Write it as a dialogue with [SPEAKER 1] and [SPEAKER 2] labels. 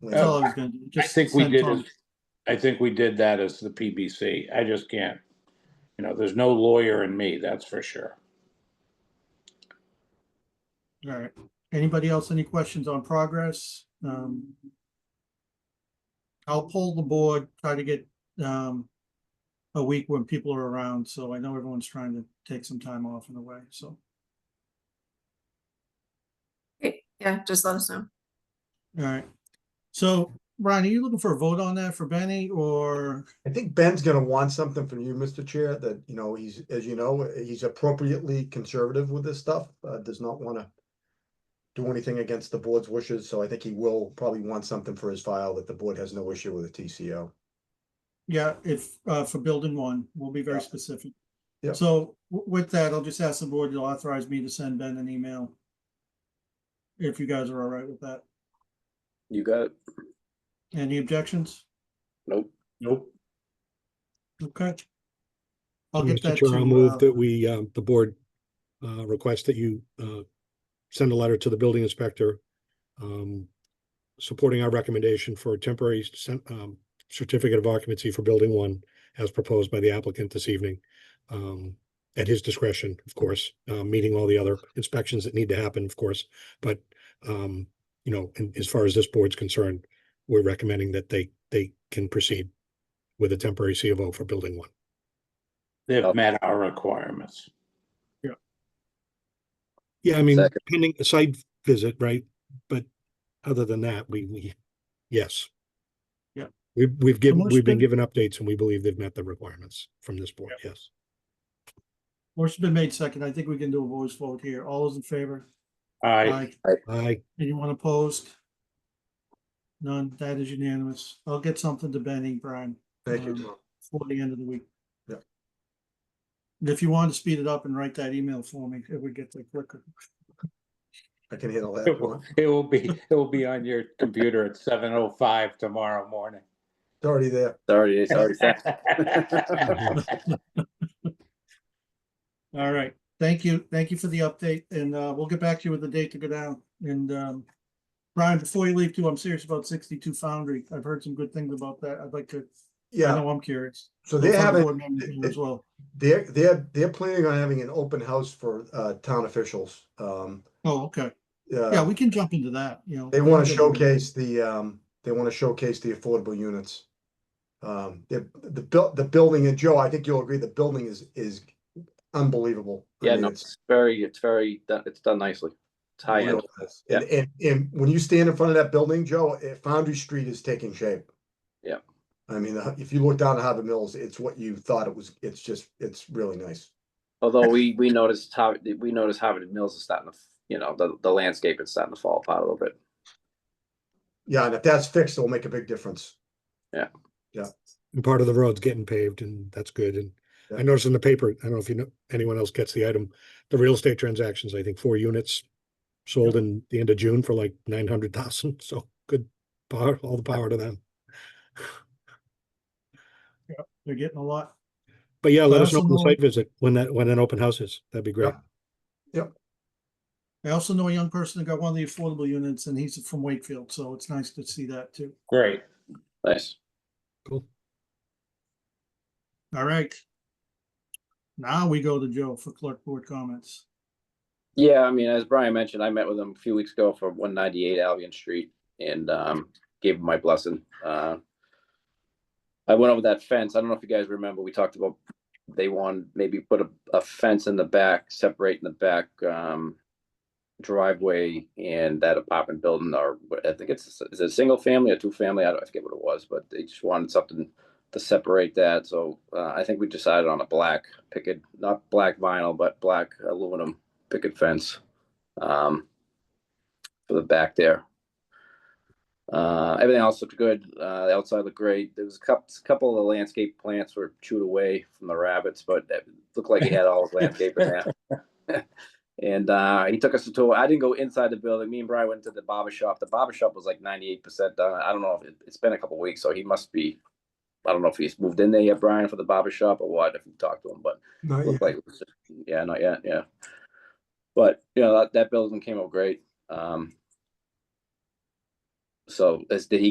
[SPEAKER 1] That's all I was gonna, do,
[SPEAKER 2] Oh. I
[SPEAKER 1] just.
[SPEAKER 2] think we
[SPEAKER 1] send
[SPEAKER 2] did,
[SPEAKER 1] Tom-
[SPEAKER 2] as- I think we did that as the PBC. I just can't. You know, there's no lawyer in me, that's for sure.
[SPEAKER 1] All right. Anybody else, any questions on progress? Um. I'll pull the board, try to get, um. A week when people are around, so I know everyone's trying to take some time off in the way, so.
[SPEAKER 3] Great. Yeah, just let us know.
[SPEAKER 1] All right. So Brian, are you looking for a vote on that for Benny or,
[SPEAKER 4] I think Ben's gonna want something from you, Mr. Chair, that, you know, he's, as you know, he's appropriately conservative with this stuff, uh, does not wanna do anything against the board's wishes, so I think he will probably want something for his file that the board has no issue with the TCO.
[SPEAKER 1] yeah, if, uh, for building one, we'll be very
[SPEAKER 4] Yeah.
[SPEAKER 1] specific.
[SPEAKER 4] Yeah.
[SPEAKER 1] So w- with that, I'll just ask the board to authorize me to send Ben an email. If you guys are all right with that.
[SPEAKER 5] You got it?
[SPEAKER 1] Any objections?
[SPEAKER 5] Nope.
[SPEAKER 2] Nope.
[SPEAKER 1] Okay. I'll get
[SPEAKER 6] Mr.
[SPEAKER 1] that
[SPEAKER 6] Chair, I'll
[SPEAKER 1] to, uh,
[SPEAKER 6] move that we, uh, the board uh, request that you uh, send a letter to the building inspector um, supporting our recommendation for a temporary cen- um, certificate of occupancy for building one as proposed by the applicant this evening. um, At his discretion, of course, uh, meeting all the other inspections that need to happen, of course. But, um, you know, and as far as this board's concerned, we're recommending that they, they can proceed with a temporary C of O for building one.
[SPEAKER 2] They've met our requirements.
[SPEAKER 6] Yeah, I mean,
[SPEAKER 5] Second.
[SPEAKER 6] pending a site visit, right? But other than that, we, we, yes.
[SPEAKER 1] Yeah.
[SPEAKER 6] We've, we've given,
[SPEAKER 1] most
[SPEAKER 6] we've been
[SPEAKER 1] been-
[SPEAKER 6] given updates and we believe they've met the requirements from this board, yes.
[SPEAKER 1] motion's been made second. I think we can do a voice vote here. All those in favor?
[SPEAKER 2] I,
[SPEAKER 1] Aye.
[SPEAKER 6] I,
[SPEAKER 1] Anyone opposed? None. That is unanimous. I'll get something to Benny, Brian,
[SPEAKER 4] Thank you,
[SPEAKER 1] Um,
[SPEAKER 4] Tom.
[SPEAKER 1] before the end of the week.
[SPEAKER 4] Yeah.
[SPEAKER 1] And if you want to speed it up and write that email for me, it would get there quicker.
[SPEAKER 4] I can handle that.
[SPEAKER 2] it
[SPEAKER 4] if you
[SPEAKER 2] will
[SPEAKER 4] want.
[SPEAKER 2] it will be, it will be on your computer at seven oh five tomorrow morning.
[SPEAKER 4] It's already there.
[SPEAKER 5] It's already, it's already. sent.
[SPEAKER 1] All right. Thank you. Thank you for the update and uh, we'll get back to you with the date to go down. And um, Brian, before you leave too, I'm serious about sixty-two Foundry. I've heard some good things about that. I'd like to, I
[SPEAKER 4] Yeah,
[SPEAKER 1] know I'm curious.
[SPEAKER 4] so they
[SPEAKER 1] Some
[SPEAKER 4] have it,
[SPEAKER 1] board members do As well.
[SPEAKER 4] they're, they're, they're planning on having an open house for, uh, town officials. Um, uh,
[SPEAKER 1] Oh, okay. Yeah,
[SPEAKER 4] yeah,
[SPEAKER 1] we can jump into that, you know.
[SPEAKER 4] they wanna
[SPEAKER 1] Yeah.
[SPEAKER 4] showcase the, um, they wanna showcase the affordable units. Um, the, the buil- the building, and Joe, I think you'll agree, the building is, is unbelievable. I
[SPEAKER 5] Yeah,
[SPEAKER 4] mean,
[SPEAKER 5] no,
[SPEAKER 4] it's-
[SPEAKER 5] it's very, it's very, done- it's done nicely. It's high end.
[SPEAKER 4] Real fast. And, and, and when you stand in front of that building, Joe, eh, Foundry Street is taking shape.
[SPEAKER 5] Yeah.
[SPEAKER 4] I mean, the- if you look down at Harbor Mills, it's what you thought it was. It's just, it's really nice.
[SPEAKER 5] Although we, we noticed how, we noticed Harvard Mills is starting to, f- you know, the, the landscape is starting to fall apart a little bit.
[SPEAKER 4] Yeah, and if that's fixed, it'll make a big difference.
[SPEAKER 6] and part of the road's getting paved and that's good. And I
[SPEAKER 4] Yeah.
[SPEAKER 6] noticed in the paper, I don't know if you know, anyone else gets the item, the real estate transactions, I think four units sold in the end of June for like nine hundred thousand. So good power, all the power to them.
[SPEAKER 1] They're getting a lot.
[SPEAKER 6] But yeah, let us know on the
[SPEAKER 1] Personal-
[SPEAKER 6] site visit when that, when an open house is. That'd be great.
[SPEAKER 4] Yeah.
[SPEAKER 1] I also know a young person that got one of the affordable units and he's from Wakefield, so it's nice to see that too.
[SPEAKER 2] Great.
[SPEAKER 5] Nice.
[SPEAKER 6] Cool.
[SPEAKER 1] All right. Now we go to Joe for clerk board comments.
[SPEAKER 5] Yeah, I mean, as Brian mentioned, I met with him a few weeks ago for one ninety-eight Albion Street and um gave him my blessing. Uh I went over that fence. I don't know if you guys remember, we talked about they want maybe put a a fence in the back, separating the back um driveway and that apartment building or what- I think it's is it a single family or two family? I don't I forget what it was, but they just wanted something to separate that. So uh, I think we decided on a black picket, not black vinyl, but black aluminum picket fence um, for the back there. Uh, everything else looked good. Uh, the outside looked great. There was a couple, couple of the landscape plants were chewed away from the rabbits, but it looked like he had all his landscape in there. and uh, he took us to tour. I didn't go inside the building. Me and Brian went to the barber shop. The barber shop was like 98% done. I don't know if it, it's been a couple weeks, so he must be. I don't know if he's moved in there yet, Brian, for the barber shop or what. If you talked to him, but
[SPEAKER 4] Not
[SPEAKER 5] looked like it was just, yeah, not yet, yeah. But you know, that, that building came out great. Um. So as did he